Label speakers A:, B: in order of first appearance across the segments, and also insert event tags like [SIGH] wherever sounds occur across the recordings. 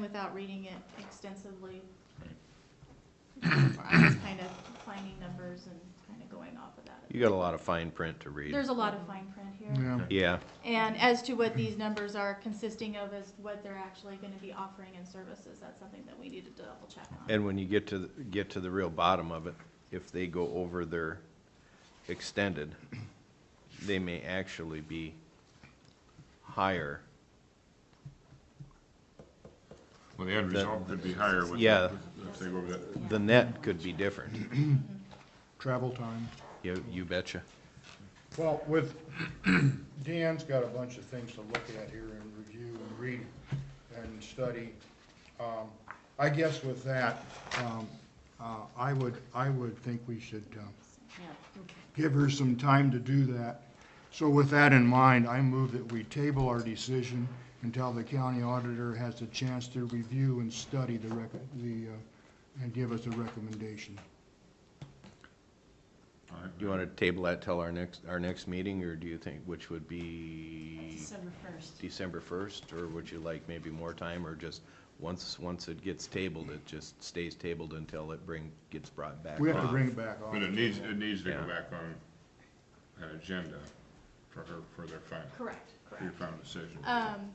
A: without reading it extensively.
B: Right.
A: [CLEARS THROAT] I'm just kind of finding numbers and kind of going off of that.
C: You got a lot of fine print to read.
A: There's a lot of fine print here.
D: Yeah,
C: Yeah,
A: And as to what these numbers are consisting of is what they're actually gonna be offering in services, that's something that we need to double check on.
C: and when you get to, the- get to the real bottom of it, if they go over their extended, they may actually be higher.
B: Well, the end
C: That-
B: result could be higher with,
C: Yeah.
B: if they go over that.
C: The net could be different.
D: travel time.
C: You, you betcha.
D: Well, with, [CLEARS THROAT] Dan's got a bunch of things to look at here and review and read and study. Um, I guess with that, um, uh, I would, I would think we should, um, give her some time to do that. So with that in mind, I move that we table our decision until the county auditor has a chance to review and study the rec, the, uh, and give us a recommendation.
B: All right.
C: Do you want to table that till our next, our next meeting, or do you think, which would be
E: December first.
C: December first? Or would you like maybe more time, or just, once, once it gets tabled, it just stays tabled until it bring, gets brought back
D: We have to
C: on?
D: bring it back on.
B: But it needs, it needs to go
C: Yeah.
B: back on an agenda for her, for their final,
A: Correct,
B: for your
A: correct.
B: final decision.
A: Um,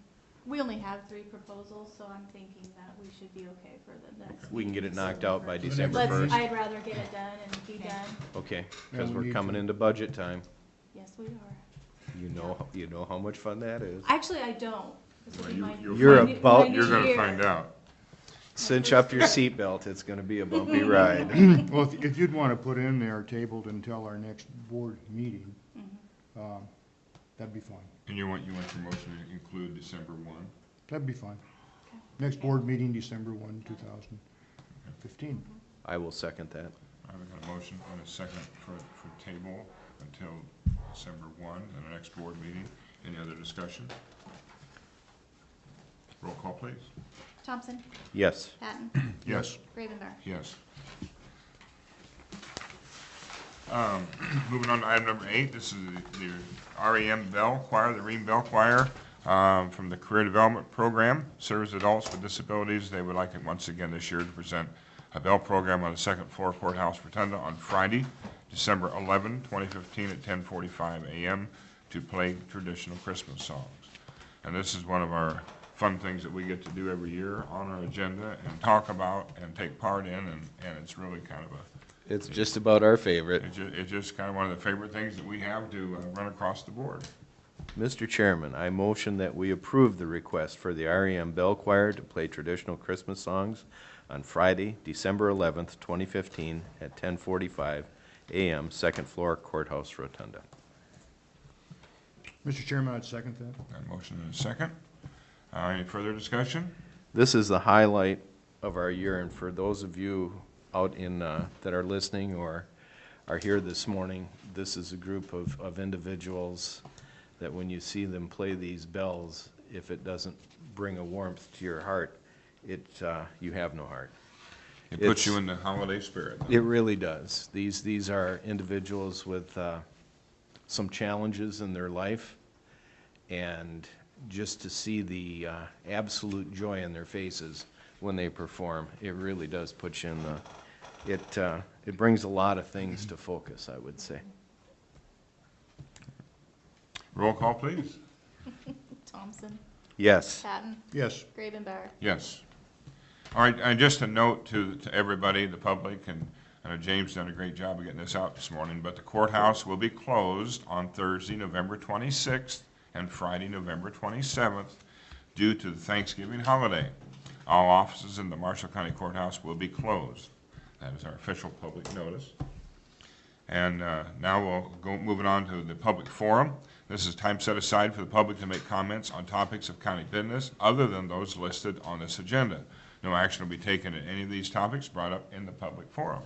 A: we only have three proposals, so I'm thinking that we should be okay for the next.
C: We can get it knocked out by
D: Let's-
C: December
A: Let's,
C: first?
A: I'd rather get it done and be
E: Okay.
A: done.
C: Okay,
D: Yeah,
C: because
D: we
C: we're
D: need
C: coming
D: to-
C: into budget time.
A: Yes, we are.
C: You know, you know how much fun that is.
A: Actually, I don't. This will
B: Well,
A: be
B: you-
A: my-
B: you'll
A: my
C: You're
A: new-
C: about-
A: my new
B: You're gonna
A: year.
B: find out.
C: Cinch up your seatbelt, it's gonna be a
D: [LAUGHS]
C: bumpy [CLEARS THROAT] ride.
D: Well, if- if you'd want to put in there tabled until our next board meeting, um, that'd be fine.
B: And you want, you want your motion to include December one?
D: That'd be fine.
A: Okay.
D: Next board meeting, December 1, 2015.
C: I will second that.
B: I've got a motion and a second for, for table until December one, and the next board meeting. Any other discussion? Roll call, please.
A: Thompson,
C: Yes,
A: Patton,
B: Yes.
A: Gravenberg.
B: Yes. Um, Moving on to item number eight, this is the- the REM Bell Choir, the Ream Bell Choir, um, from the Career Development Program, serves adults with disabilities. They would like it once again this year to present a bell program on the second floor courthouse rotunda on Friday, December 11, 2015, at 10:45 a.m. to play traditional Christmas songs. And this is one of our fun things that we get to do every year on our agenda and talk about and take part in, and, and it's really kind of a,
C: it's just about our favorite.
B: it's ju- it's just kind of one of the favorite things that we have to uh, run across the board.
C: Mr. Chairman, I motion that we approve the request for the REM Bell Choir to play traditional Christmas songs on Friday, December eleventh, twenty fifteen, at ten forty-five AM, second floor courthouse rotunda.
D: Mr. Chairman, I'd second that.
B: Got a motion and a second. Uh, any further discussion?
C: This is the highlight of our year, and for those of you out in, uh, that are listening or are here this morning, this is a group of, of individuals that when you see them play these bells, if it doesn't bring a warmth to your heart, it, uh, you have no heart.
B: It
C: It's-
B: puts you in the holiday spirit.
C: It really does. These, these are individuals with uh, some challenges in their life, and just to see the uh, absolute joy in their faces when they perform, it really does put you in the, it, uh, it brings a lot of things to focus, I would say.
B: Roll call, please.
A: Thompson,
C: Yes.
A: Patton,
D: Yes,
A: Gravenberg.
B: Yes. All right, and just a note to, to everybody, the public, and I know James done a great job of getting this out this morning, but the courthouse will be closed on Thursday, November twenty-sixth, and Friday, November twenty-seventh, due to the Thanksgiving holiday. All offices in the Marshall County Courthouse will be closed. That is our official public notice. And uh, now we'll go, moving on to the public forum. This is time set aside for the public to make comments on topics of county business other than those listed on this agenda. No action will be taken on any of these topics brought up in the public forum.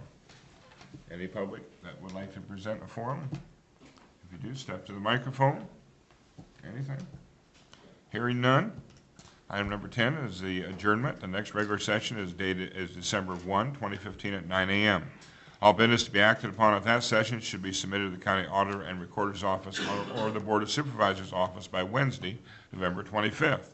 B: Any public that would like to present a forum? If you do, step to the microphone. Anything? Hearing none. Item number 10 is the adjournment. The next regular session is dated, is December 1, 2015, at 9 a.m. All business to be acted upon at that session should be submitted to the county auditor and recorder's office or- or the Board of Supervisors' office by Wednesday, November 25th.